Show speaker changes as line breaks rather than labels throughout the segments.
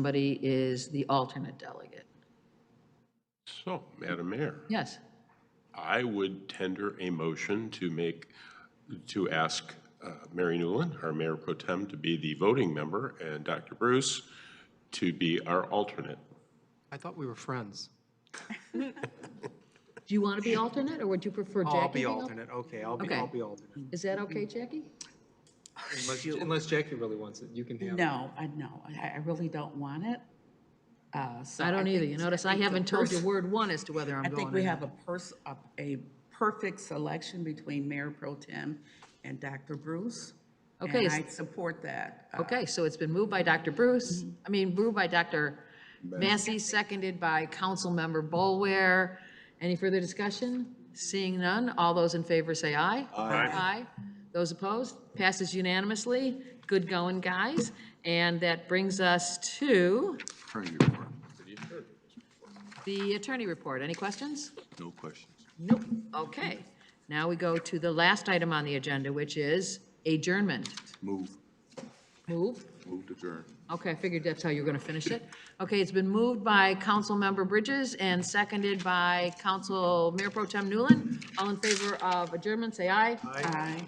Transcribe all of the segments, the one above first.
somebody is the alternate delegate.
So, Madam Mayor,
Yes,
I would tender a motion to make, to ask uh, Mary Newland, our Mayor Pro Tem, to be the voting member, and Dr. Bruce to be our alternate.
I thought we were friends.
do you want to be alternate, or would you prefer Jackie?
Oh, I'll be
being al-
alternate. Okay, I'll be,
Okay.
I'll be alternate.
Is that okay, Jackie?
Unless, unless Jackie really wants it, you can have it.
No, I know, I, I really don't want it. Uh, so
I don't either,
think-
you notice I
think the
haven't told you
pers-
word one as to whether I'm
I
going
think
or
we
not.
have a pers, a, a perfect selection between Mayor Pro Tem and Dr. Bruce.
Okay,
And
is-
I support that. Uh,
Okay, so it's been moved by Dr. Bruce, I mean, moved by Dr. Massey, seconded by Councilmember Bolware. Any further discussion? Seeing none, all those in favor say aye. Aye. Aye. Those opposed? Passes unanimously. Good going, guys. And that brings us to the attorney report. Any questions?
No questions.
Nope. Okay. Now we go to the last item on the agenda, which is adjournment.
Move,
Move.
move to adjourn.
Okay, I figured that's how you were going to finish it. Okay, it's been moved by Councilmember Bridges and seconded by Council Mayor Pro Tem Newland. All in favor of adjournment, say aye.
Aye.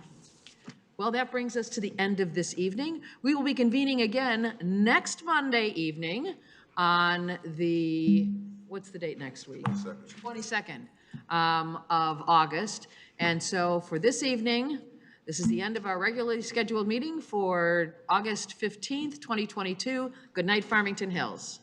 Well, that brings us to the end of this evening. We will be convening again next Monday evening on the, what's the date next week? 22nd um, of August. And so for this evening, this is the end of our regularly scheduled meeting for August 15th, 2022. Good night, Farmington Hills.